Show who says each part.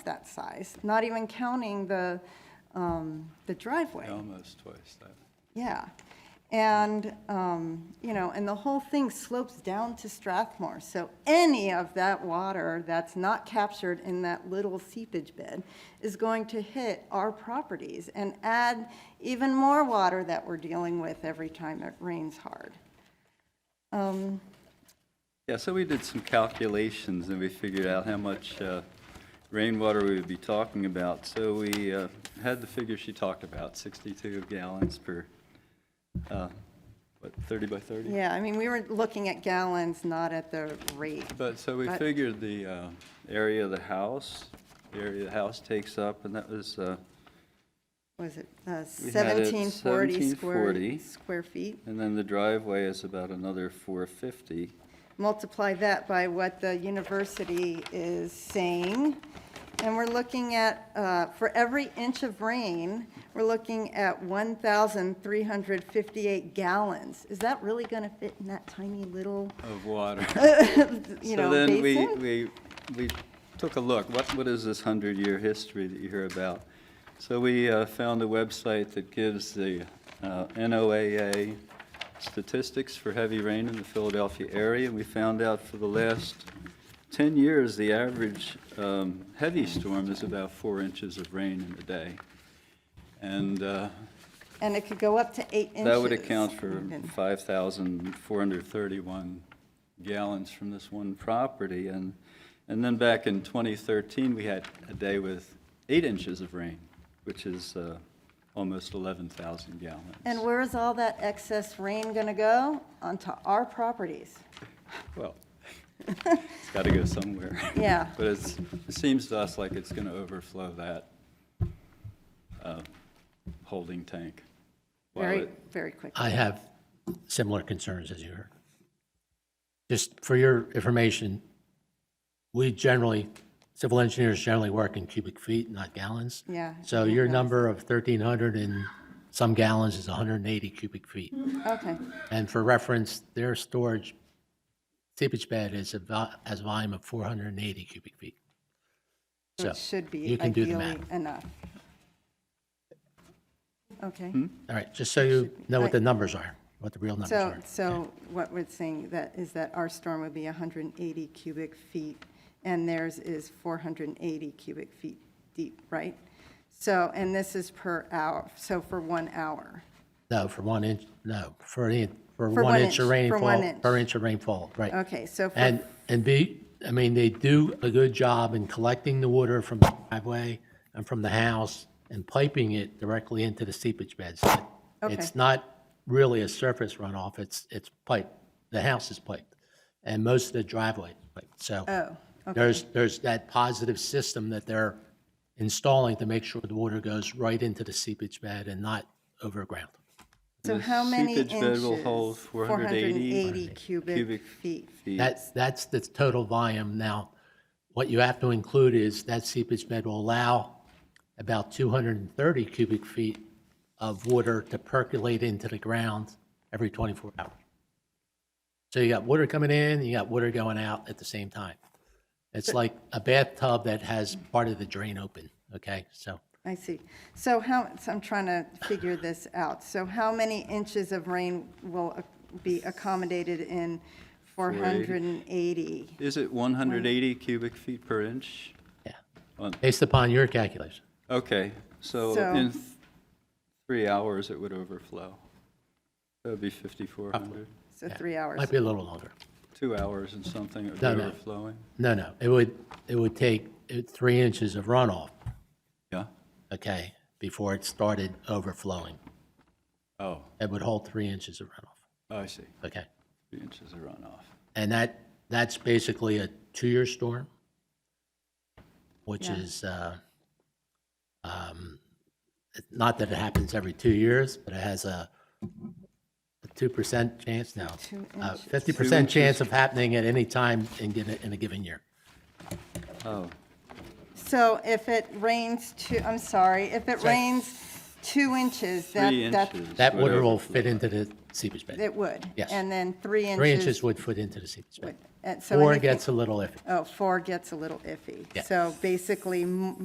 Speaker 1: that size, not even counting the, um, the driveway.
Speaker 2: Almost twice that.
Speaker 1: Yeah. And, um, you know, and the whole thing slopes down to Strathmore. So any of that water that's not captured in that little seepage bed is going to hit our properties and add even more water that we're dealing with every time it rains hard.
Speaker 2: Yeah, so we did some calculations and we figured out how much uh, rainwater we would be talking about. So we uh, had the figure she talked about, 62 gallons per, uh, what, 30 by 30?
Speaker 1: Yeah, I mean, we were looking at gallons, not at the rate.
Speaker 2: But, so we
Speaker 1: But-
Speaker 2: figured the uh, area of the house, the area the house takes up, and that was, uh,
Speaker 1: Was it uh,
Speaker 2: We had it
Speaker 1: 1740
Speaker 2: 1740.
Speaker 1: square, square feet?
Speaker 2: and then the driveway is about another 450.
Speaker 1: multiply that by what the university is saying, and we're looking at, uh, for every inch of rain, we're looking at 1,358 gallons. Is that really going to fit in that tiny little,
Speaker 2: Of water.
Speaker 1: you know,
Speaker 2: So then
Speaker 1: basin?
Speaker 2: we, we, we took a look, what, what is this hundred-year history that you hear about? So we uh, found a website that gives the uh, NOAA statistics for heavy rain in the Philadelphia area. And we found out for the last ten years, the average um, heavy storm is about four inches of rain in a day. And uh,
Speaker 1: And it could go up to eight inches.
Speaker 2: that would account for
Speaker 1: even.
Speaker 2: 5,431 gallons from this one property. And, and then back in 2013, we had a day with eight inches of rain, which is uh, almost 11,000 gallons.
Speaker 1: And where is all that excess rain going to go? Onto our properties.
Speaker 2: Well, it's got to go somewhere.
Speaker 1: Yeah.
Speaker 2: But it's, it seems to us like it's going to overflow that uh, holding tank. while
Speaker 1: Very,
Speaker 2: it-
Speaker 1: very quickly.
Speaker 3: I have similar concerns as you heard. Just for your information, we generally, civil engineers generally work in cubic feet, not gallons.
Speaker 1: Yeah.
Speaker 3: So your number of 1,300 and some gallons is 180 cubic feet.
Speaker 1: Okay,
Speaker 3: And for reference, their storage seepage bed is a, vol- has a volume of 480 cubic feet.
Speaker 1: so
Speaker 3: So
Speaker 1: it should
Speaker 3: you
Speaker 1: be
Speaker 3: can do the
Speaker 1: ideally
Speaker 3: math.
Speaker 1: enough. Okay.
Speaker 2: Hmm?
Speaker 3: All right, just so you know what the numbers are, what the real numbers
Speaker 1: So,
Speaker 3: are.
Speaker 1: so what we're saying that is that our storm would be 180 cubic feet, and theirs is 480 cubic feet deep, right? So, and this is per hour, so for one hour.
Speaker 3: No, for one inch, no, for an, in- for
Speaker 1: For
Speaker 3: one
Speaker 1: one
Speaker 3: inch of
Speaker 1: inch, for one
Speaker 3: rainfall,
Speaker 1: inch.
Speaker 3: per inch of rainfall, right.
Speaker 1: Okay, so for-
Speaker 3: And, and be, I mean, they do a good job in collecting the water from the driveway and from the house and piping it directly into the seepage beds. It's
Speaker 1: Okay.
Speaker 3: not really a surface runoff, it's, it's piped, the house is piped, and most of the driveway is piped, so.
Speaker 1: Oh,
Speaker 3: There's, there's that positive system that they're installing to make sure the water goes right into the seepage bed and not overground.
Speaker 1: So
Speaker 2: The
Speaker 1: how many
Speaker 2: seepage
Speaker 1: inches?
Speaker 2: bed will hold 480
Speaker 1: 480 cubic
Speaker 2: cubic
Speaker 1: feet.
Speaker 2: feet.
Speaker 3: That's, that's the total volume. Now, what you have to include is that seepage bed will allow about 230 cubic feet of water to percolate into the ground every 24 hours. So you got water coming in, you got water going out at the same time. It's like a bathtub that has part of the drain open, okay? So
Speaker 1: I see. So how, so I'm trying to figure this out. So how many inches of rain will uh, be accommodated in 480?
Speaker 2: Is it 180 cubic feet per inch?
Speaker 3: Yeah.
Speaker 2: On-
Speaker 3: Based upon your calculation,
Speaker 2: Okay, so
Speaker 1: So-
Speaker 2: in th- three hours, it would overflow. That would be 5,400.
Speaker 1: So three hours.
Speaker 3: might be a little longer.
Speaker 2: Two hours and something it would be
Speaker 3: No, no.
Speaker 2: overflowing.
Speaker 3: No, no, it would, it would take uh, three inches of runoff,
Speaker 2: Yeah?
Speaker 3: okay, before it started overflowing.
Speaker 2: Oh,
Speaker 3: It would hold three inches of runoff,
Speaker 2: I see.
Speaker 3: okay?
Speaker 2: Three inches of runoff.
Speaker 3: And that, that's basically a two-year storm, which is, uh, um, it- not that it happens every two years, but it has a a 2% chance now,
Speaker 1: Two
Speaker 3: uh,
Speaker 1: inches.
Speaker 3: 50% chance of happening at any time in, given- in a given year.
Speaker 2: Oh,
Speaker 1: So if it rains two, I'm sorry, if it rains two inches, that,
Speaker 2: three
Speaker 1: that,
Speaker 2: inches.
Speaker 3: That
Speaker 2: would
Speaker 3: water will
Speaker 2: overflow.
Speaker 3: fit into the seepage bed.
Speaker 1: it would?
Speaker 3: Yes.
Speaker 1: And then three
Speaker 3: Three inches
Speaker 1: inches?
Speaker 3: would fit into the seepage bed.
Speaker 1: And so
Speaker 3: Four
Speaker 1: anything-
Speaker 3: gets a little iffy.
Speaker 1: Oh, four gets a little iffy.
Speaker 3: Yeah.
Speaker 1: So basically, m-